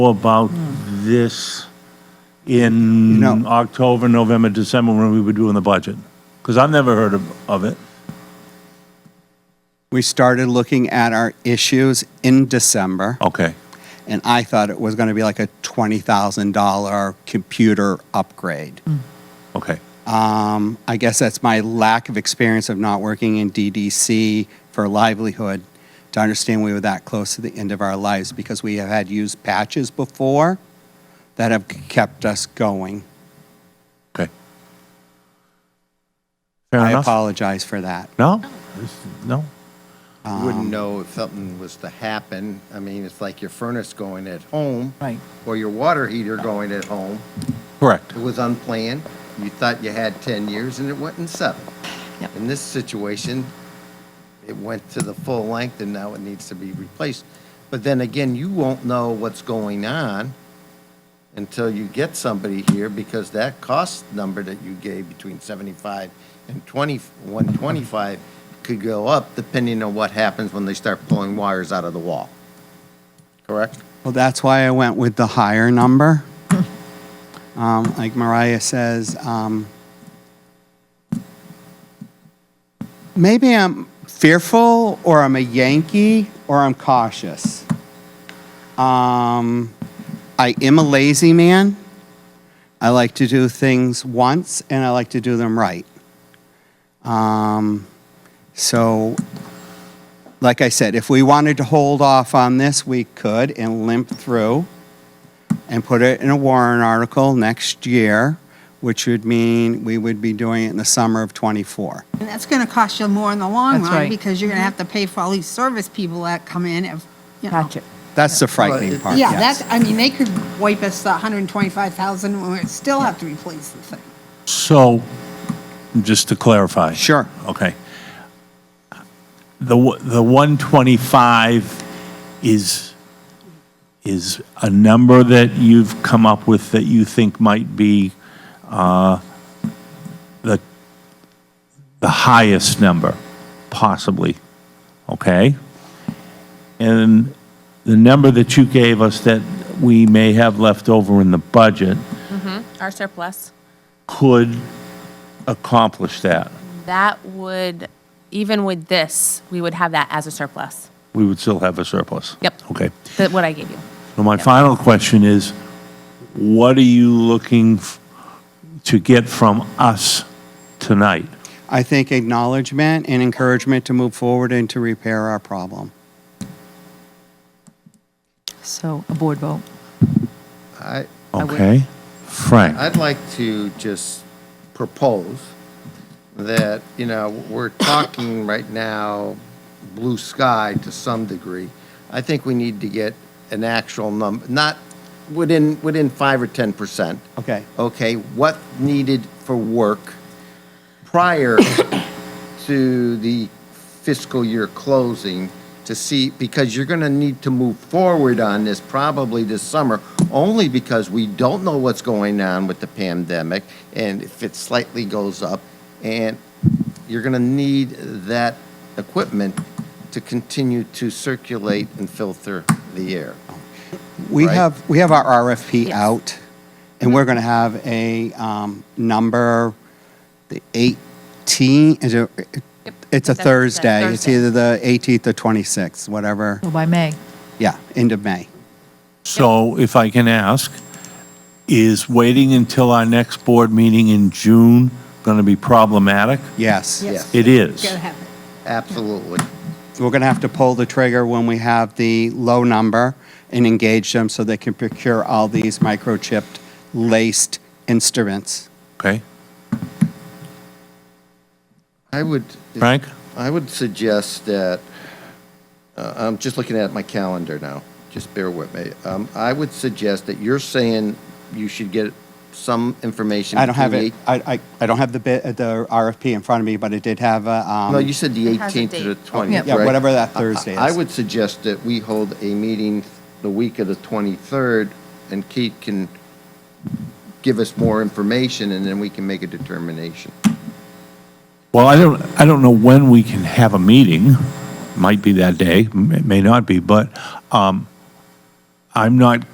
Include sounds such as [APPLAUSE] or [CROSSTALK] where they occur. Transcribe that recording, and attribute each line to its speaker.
Speaker 1: about this in
Speaker 2: know-
Speaker 1: October, November, December, when we were doing the budget? Because I've never heard of, of it.
Speaker 2: We started looking at our issues in December,
Speaker 1: Okay.
Speaker 2: and I thought it was going to be like a $20,000 computer upgrade.
Speaker 1: Mm. Okay.
Speaker 2: Um, I guess that's my lack of experience of not working in DDC for livelihood to understand we were that close to the end of our lives because we have had used patches before that have kept us going.
Speaker 1: Okay. Fair
Speaker 2: I
Speaker 1: enough.
Speaker 2: apologize for that.
Speaker 1: No? This- No?
Speaker 3: You wouldn't know if something was to happen. I mean, it's like your furnace going at home.
Speaker 4: Right.
Speaker 3: Or your water heater going at home.
Speaker 1: Correct.
Speaker 3: It was unplanned. You thought you had 10 years and it went in seven.
Speaker 4: Yep.
Speaker 3: In this situation, it went to the full length and now it needs to be replaced. But then again, you won't know what's going on until you get somebody here because that cost number that you gave between 75 and 20, 125 could go up depending on what happens when they start pulling wires out of the wall. Correct?
Speaker 2: Well, that's why I went with the higher number. Um, like Mariah says, um, maybe I'm fearful, or I'm a Yankee, or I'm cautious. Um, I am a lazy man. I like to do things once, and I like to do them right. Um, so like I said, if we wanted to hold off on this, we could and limp through and put it in a warrant article next year, which would mean we would be doing it in the summer of '24.
Speaker 5: And that's going to cost you more in the long
Speaker 4: That's
Speaker 5: run
Speaker 4: right.
Speaker 5: because you're going to have to pay for all these service people that come in if, you know.
Speaker 4: Gotcha.
Speaker 2: That's the frightening part,
Speaker 5: Yeah,
Speaker 2: yes.
Speaker 5: that's, I mean, they could wipe us the 125,000 and we still have to replace the thing.
Speaker 1: So, just to clarify.
Speaker 2: Sure.
Speaker 1: Okay. The, w- the 125 is, is a number that you've come up with that you think might be uh, the, the highest number, possibly, okay? And the number that you gave us that we may have left over in the budget
Speaker 6: Our surplus,
Speaker 1: could accomplish that.
Speaker 6: that would, even with this, we would have that as a surplus,
Speaker 1: we would still have a surplus.
Speaker 6: Yep.
Speaker 1: Okay.
Speaker 6: that, what I gave you.
Speaker 1: So my final question is, what are you looking f- to get from us tonight?
Speaker 2: I think acknowledgement and encouragement to move forward and to repair our problem.
Speaker 4: So a board vote.
Speaker 3: I,
Speaker 6: would-
Speaker 1: Okay? Frank?
Speaker 3: I'd like to just propose that, you know, we're talking [COUGHS] right now blue sky to some degree. I think we need to get an actual number, not within, within five or 10%.
Speaker 2: Okay.
Speaker 3: Okay, what needed for work prior [COUGHS] to the fiscal year closing to see, because you're going to need to move forward on this probably this summer, only because we don't know what's going on with the pandemic and if it slightly goes up. And you're going to need that equipment to continue to circulate and filter the air.
Speaker 2: We
Speaker 3: Right.
Speaker 2: have, we have our RFP
Speaker 6: Yes.
Speaker 2: out, and we're going to have a um, number, the 18, is it, it's a
Speaker 6: That's- that's
Speaker 2: Thursday. It's
Speaker 6: Thursday.
Speaker 2: either the 18th or 26th, whatever,
Speaker 4: So by May.
Speaker 2: yeah, end of May.
Speaker 1: So if I can ask, is waiting until our next board meeting in June going to be problematic?
Speaker 2: Yes.
Speaker 3: Yes.
Speaker 1: It is.
Speaker 5: Got to have it.
Speaker 3: Absolutely.
Speaker 2: We're going to have to pull the trigger when we have the low number and engage them so they can procure all these microchipped laced instruments.
Speaker 1: Okay?
Speaker 3: I would.
Speaker 1: Frank?
Speaker 3: I would suggest that, uh, I'm just looking at my calendar now, just bear with me. Um, I would suggest that you're saying you should get some information.
Speaker 2: I don't have
Speaker 3: between
Speaker 2: it, I, I, I don't have the bid, the RFP in front of me, but it did have a,
Speaker 3: the
Speaker 2: um.
Speaker 3: eight- No, you said the
Speaker 6: It has a
Speaker 3: 18th to the
Speaker 6: date.
Speaker 3: 20th,
Speaker 2: Yeah,
Speaker 3: right?
Speaker 2: whatever that Thursday is.
Speaker 3: I would suggest that we hold a meeting the week of the 23rd, and Keith can give us more information, and then we can make a determination.
Speaker 1: Well, I don't, I don't know when we can have a meeting. Might be that day, m- may not be, but um, I'm not